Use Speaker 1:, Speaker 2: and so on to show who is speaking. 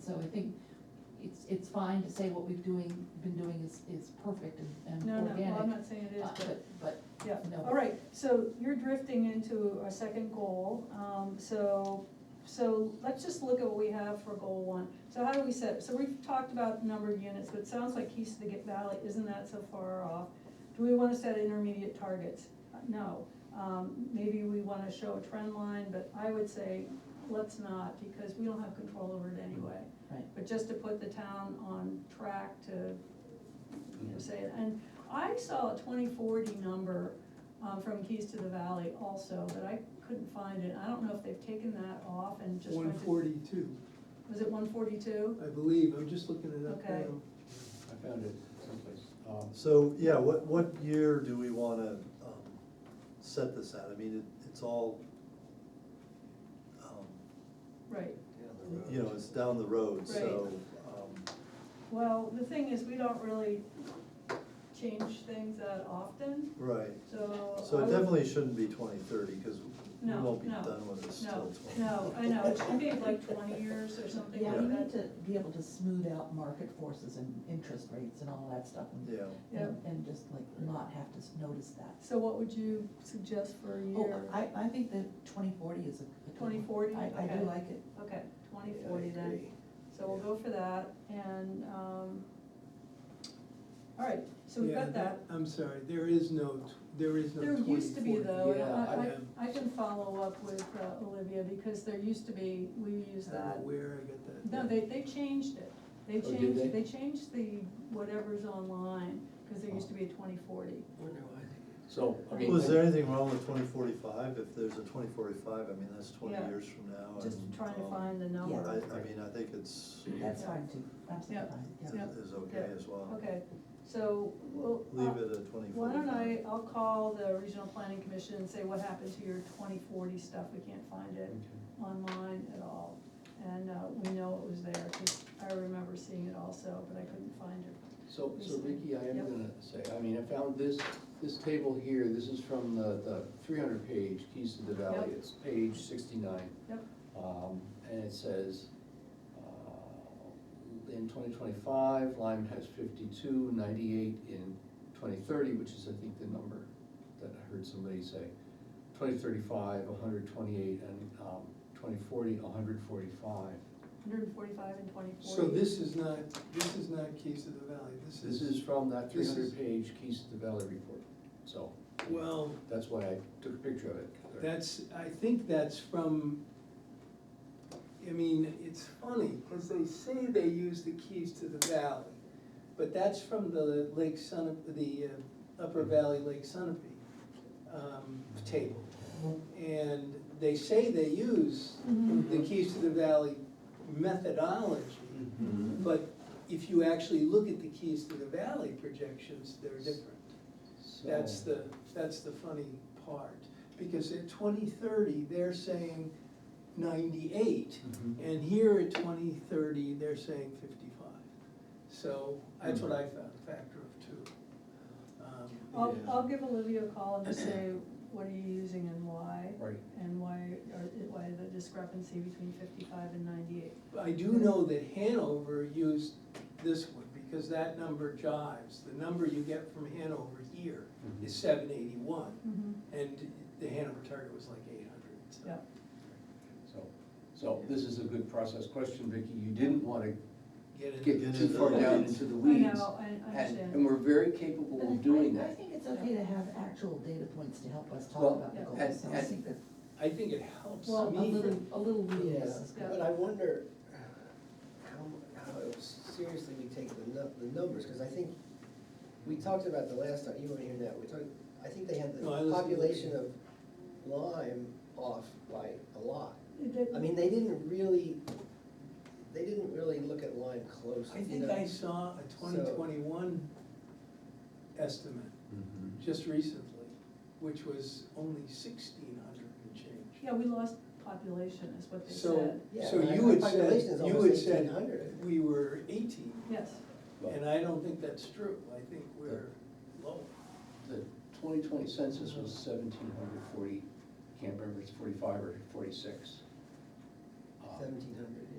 Speaker 1: so I think it's, it's fine to say what we've doing, been doing is, is perfect and, and
Speaker 2: No, no,
Speaker 1: organic.
Speaker 2: well, I'm not saying it is,
Speaker 1: uh,
Speaker 2: but,
Speaker 1: But,
Speaker 2: yeah,
Speaker 1: no.
Speaker 2: all right, so you're drifting into a second goal, um, so, so let's just look at what we have for goal one. So how do we set, so we've talked about the number of units, but it sounds like East of the Gate Valley isn't that so far off. Do we wanna set intermediate targets? Uh, No, um, maybe we wanna show a trend line, but I would say, let's not, because we don't have control over it anyway.
Speaker 1: Right.
Speaker 2: But just to put the town on track to you know, say it, and I saw a twenty forty number, um, from Keys to the Valley also, but I couldn't find it, I don't know if they've taken that off and just
Speaker 3: One
Speaker 2: went to.
Speaker 3: forty-two,
Speaker 2: Was it one forty-two?
Speaker 3: I believe, I'm just looking it up
Speaker 2: Okay.
Speaker 3: now.
Speaker 4: I found it someplace. Um,
Speaker 5: So, yeah, what, what year do we wanna, um, set this at? I mean, it, it's all, um,
Speaker 2: Right,
Speaker 5: you know, it's down the road, so, um,
Speaker 2: well, the thing is, we don't really change things that often,
Speaker 5: right.
Speaker 2: so.
Speaker 5: So
Speaker 2: I
Speaker 5: it
Speaker 2: would-
Speaker 5: definitely shouldn't be twenty thirty, cause we
Speaker 2: No,
Speaker 5: won't be
Speaker 2: no,
Speaker 5: done with this till
Speaker 2: No,
Speaker 5: twenty.
Speaker 2: no, I know, it should be like twenty years or something
Speaker 1: Yeah, we
Speaker 2: like
Speaker 1: need
Speaker 2: that.
Speaker 1: to be able to smooth out market forces and interest rates and all that stuff and,
Speaker 5: Yeah,
Speaker 1: and- and just like not have to s- notice that.
Speaker 2: So what would you suggest for a
Speaker 1: Oh,
Speaker 2: year?
Speaker 1: I, I think that twenty forty is a. a good one.
Speaker 2: 2040?
Speaker 1: I, I
Speaker 2: Okay.
Speaker 1: do like it.
Speaker 2: Okay, twenty forty then. So we'll go for that, and, um, all right, so we've
Speaker 3: Yeah,
Speaker 2: got that.
Speaker 3: I'm sorry, there is no, t- there is no
Speaker 2: There
Speaker 3: twenty-four.
Speaker 2: used to be though, and I,
Speaker 4: Yeah,
Speaker 2: I, I can follow up with uh, Olivia, because there used to be, we use that.
Speaker 3: Where I got that.
Speaker 2: No, they, they changed it. They
Speaker 4: Oh, did they?
Speaker 2: changed, they changed the whatever's online, because there used to be a twenty forty.
Speaker 3: Wonder why they
Speaker 4: So, I mean.
Speaker 5: was there anything wrong with twenty forty-five? If there's a twenty forty-five, I mean, that's twenty
Speaker 2: Yeah.
Speaker 5: years from now.
Speaker 2: Just
Speaker 5: and,
Speaker 2: trying to
Speaker 5: um,
Speaker 2: find the
Speaker 5: I,
Speaker 2: number.
Speaker 5: I mean, I think it's,
Speaker 1: That's fine too, absolutely
Speaker 2: Yeah.
Speaker 1: fine,
Speaker 5: is
Speaker 1: yeah.
Speaker 5: is okay as well.
Speaker 2: Okay, so we'll. uh,
Speaker 5: Leave it at twenty forty-five.
Speaker 2: Why don't I, I'll call the regional planning commission and say what happened to your twenty forty stuff, we can't find it online at all. And, uh, we know it was there, cause I remember seeing it also, but I couldn't find it.
Speaker 4: So, so Ricky, I am
Speaker 2: Yep.
Speaker 4: gonna say, I mean, I found this, this table here, this is from the, the three hundred page Keys to the Valley,
Speaker 2: Yep.
Speaker 4: it's page sixty-nine.
Speaker 2: Yep,
Speaker 4: Um, and it says, uh, in twenty twenty-five, Lyme has 52, 98 in twenty thirty, which is, I think, the number that I heard somebody say. Twenty thirty-five, hundred twenty-eight, and, um, twenty forty, hundred forty-five.
Speaker 2: hundred and forty-five and twenty
Speaker 3: were. So
Speaker 2: forty.
Speaker 3: this is not, this is not Keys to the Valley, this is.
Speaker 4: This is from that three
Speaker 3: This is-
Speaker 4: hundred page Keys to the Valley report, so.
Speaker 3: Well,
Speaker 4: That's why I took a picture of it.
Speaker 3: that's, I think that's from, I mean, it's funny, cause they say they use the Keys to the Valley, but that's from the Lake Sun, the uh, Upper Valley Lake Sunapee, um, table. And they say they use the Keys to the Valley methodology,
Speaker 4: Mhm.
Speaker 3: but if you actually look at the Keys to the Valley projections, they're different. That's
Speaker 4: So-
Speaker 3: the, that's the funny part, because at twenty thirty, they're saying ninety-eight,
Speaker 4: Mhm.
Speaker 3: and here at twenty thirty, they're saying fifty-five. So that's what I found, a factor of two. Um,
Speaker 2: I'll,
Speaker 4: Yeah.
Speaker 2: I'll give Olivia a call and just say, what are you using and why?
Speaker 4: Right.
Speaker 2: And why, or why the discrepancy between fifty-five and ninety-eight.
Speaker 3: I do know that Hanover used this one, because that number jives, the number you get from Hanover here is seven eighty-one, and the Hanover target was like eight hundred, so.
Speaker 2: Mm-hmm. Yeah,
Speaker 4: So, so this is a good process question, Vicky. You didn't wanna
Speaker 3: Get it?
Speaker 4: get
Speaker 5: Get
Speaker 4: too
Speaker 5: into
Speaker 4: far
Speaker 5: the
Speaker 4: down
Speaker 5: weeds.
Speaker 4: into
Speaker 2: I
Speaker 4: the weeds.
Speaker 2: know, I- I
Speaker 4: and-
Speaker 2: understand.
Speaker 4: And we're very capable
Speaker 1: But I-
Speaker 4: of doing
Speaker 1: I
Speaker 4: that.
Speaker 1: think it's okay to have actual data points to help us talk
Speaker 4: Well,
Speaker 1: about the
Speaker 2: yeah.
Speaker 1: goals, so I
Speaker 4: and-
Speaker 1: think that
Speaker 3: I think it helps me.
Speaker 1: a little, a little
Speaker 6: Yeah,
Speaker 1: readiness is good.
Speaker 6: but I wonder uh, how, how seriously we take the nu, the numbers, because I think, we talked about the last time, you weren't here now, we talked, I think they had the
Speaker 3: No, I listened to it.
Speaker 6: population of Lyme off by a lot.
Speaker 2: It did-
Speaker 6: I mean, they didn't really, they didn't really look at Lyme closely,
Speaker 3: I
Speaker 6: you
Speaker 3: think
Speaker 6: know?
Speaker 3: I saw a twenty twenty-one estimate
Speaker 4: Mhm.
Speaker 3: just recently, which was only sixteen hundred and change.
Speaker 2: Yeah, we lost population is what they
Speaker 3: So,
Speaker 2: said.
Speaker 6: Yeah,
Speaker 3: so
Speaker 6: I-
Speaker 3: you
Speaker 6: my
Speaker 3: had
Speaker 6: population
Speaker 3: said,
Speaker 6: is
Speaker 3: you
Speaker 6: almost
Speaker 3: had said
Speaker 6: 1,800.
Speaker 3: we were eighteen,
Speaker 2: Yes,
Speaker 4: Well,
Speaker 3: and I don't think that's true, I think we're low.
Speaker 4: The twenty twenty census was seventeen hundred forty, can't remember, it's forty-five or forty-six. Um,
Speaker 6: Seventeen hundred.